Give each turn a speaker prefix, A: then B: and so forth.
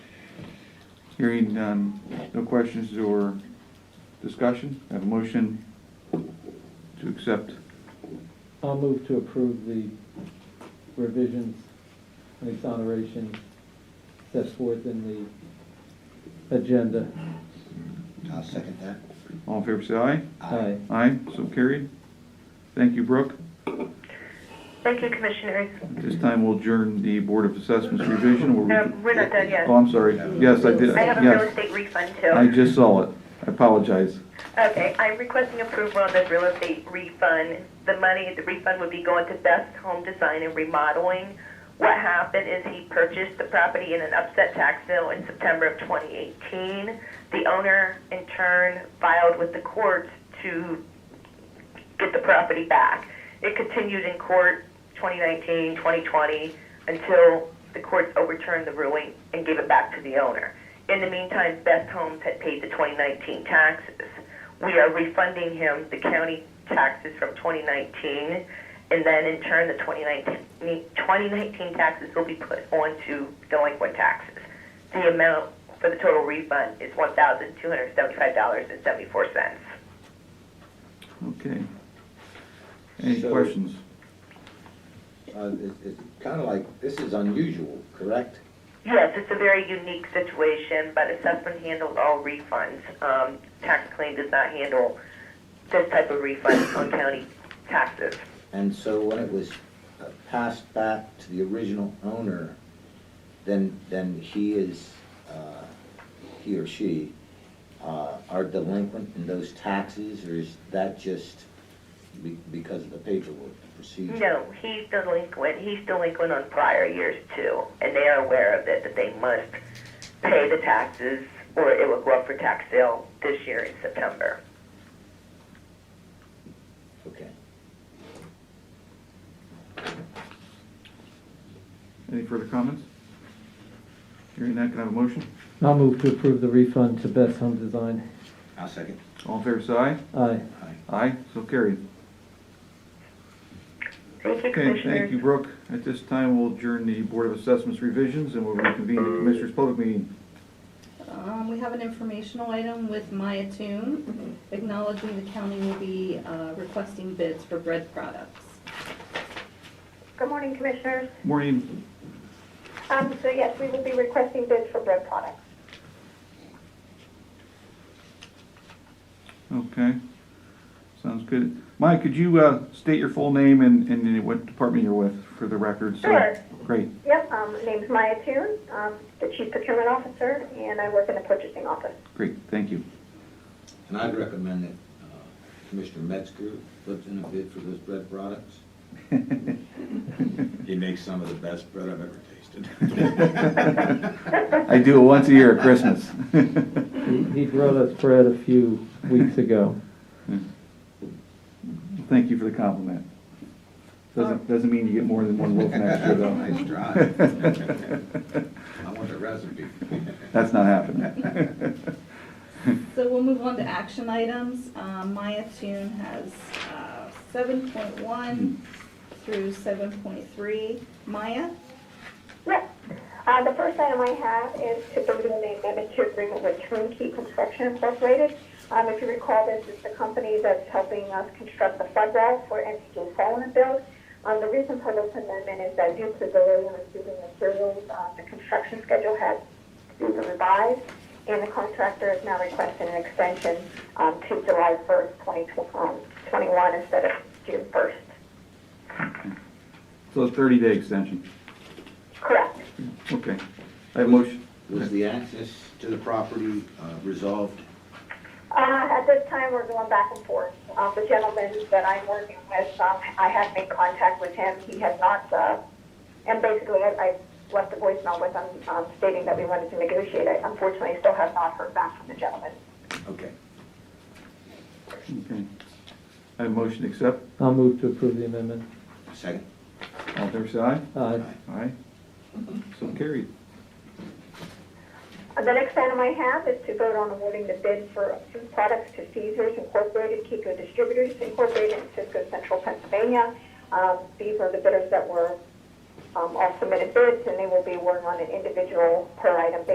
A: Hearing none, no questions or discussion, have a motion to accept.
B: I'll move to approve the revisions and exonerations set forth in the agenda.
C: I'll second that.
A: All in favor, say aye.
B: Aye.
A: Aye, so carried. Thank you, Brooke.
D: Thank you, Commissioners.
A: At this time, we'll adjourn the Board of Assessments revision. We'll re-
D: No, we're not done yet.
A: Oh, I'm sorry. Yes, I did,
D: Um, I have a real
A: yes.
D: estate refund
A: I
D: too.
A: just saw it. I apologize.
D: Okay, I'm requesting approval on this real estate refund. The money, the refund would be going to Best Home Design and Remodeling. What happened is he purchased the property in an upset tax bill in September of 2018. The owner, in turn, filed with the courts to get the property back. It continued in court 2019, 2020, until the courts overturned the ruling and gave it back to the owner. In the meantime, Best Homes had paid the 2019 taxes. We are refunding him the county taxes from 2019, and then in turn, the 2019, 2019 taxes will be put onto delinquent taxes. The amount for the total refund is $1,275.74.
A: Okay. Any
C: So-
A: questions?
C: Uh, it- It's kind of like, this is unusual, correct?
D: Yes, it's a very unique situation, but assessment handles all refunds. Um, tax claim does not handle this type of refund on county taxes.
C: And so when it was uh, passed back to the original owner, then, then he is, uh, he or she uh, are delinquent in those taxes, or is that just be- because of the paperwork, the procedure?
D: No, he's delinquent. He's delinquent on prior years too, and they are aware of it that they must pay the taxes or it will go up for tax sale this year in September.
C: Okay.
A: Any further comments? Hearing that, can I have a motion?
B: I'll move to approve the refund to Best Home Design.
C: I'll second.
A: All in favor, say aye.
B: Aye.
C: Aye.
A: Aye, so carried.
D: Thank you,
A: Okay, thank you,
D: Commissioners.
A: Brooke. At this time, we'll adjourn the Board of Assessments revisions and we'll reconvene the Commissioners' Public Meeting.
E: Um, we have an informational item with Maya Toon, acknowledging the county will be, uh, requesting bids for bread products.
F: Good morning, Commissioners.
A: Maureen,
F: Um, So yes, we will be requesting bids for bread products.
A: okay. Sounds good. Mike, could you uh, state your full name and and what department you're with for the record? so-
F: Sure.
A: Great,
F: Yep, um, name's Maya Toon, um, the Chief Procurement Officer, and I work in the Purchasing Office.
A: great, thank you.
C: And I'd recommend that uh, Commissioner Metzger puts in a bid for those bread products. He makes some of the best bread I've ever tasted.
A: I do it once a year at Christmas.
B: He he brought us bread a few weeks ago.
A: Hmm. Thank you for the compliment. Doesn't, doesn't mean you get more than one loaf next year, though.
C: Nice try. I want the recipe.
A: That's not happening.
E: So we'll move on to action items. Um, Maya Toon has, uh, seven point one through seven point three. Maya?
F: Yep. Uh, The first item I have is to approve the amendment to agreement with Turnkey Construction Incorporated. Um, If you recall, this is the company that's helping us construct the flood wall for MTJ Solomon Build. Um, The reason for this amendment is that due to the delay in receiving materials, uh, the construction schedule has been revised, and the contractor is now requesting an extension um, to July 1st, 2021, um, instead of June 1st.
A: So it's thirty-day extension.
F: Correct.
A: Okay. I have a motion.
C: Was the access to the property uh, resolved?
F: Uh, at this time, we're going back and forth. Um, the gentleman that I'm working with, um, I have made contact with him. He has not, uh, and basically I, I left a voicemail with him, um, stating that we wanted to negotiate. I unfortunately still have not heard back from the gentleman.
C: Okay.
A: Okay. I have a motion to accept.
B: I'll move to approve the amendment.
C: Second?
A: All in favor, say aye.
B: Aye.
A: Aye. So carried.
F: Uh, The next item I have is to vote on awarding the bid for food products to Caesar's Incorporated, Kiko Distributors Incorporated, and Cisco Central Pennsylvania. Um, These are the bidders that were um, all submitted bids, and they will be awarded on an individual per item basis.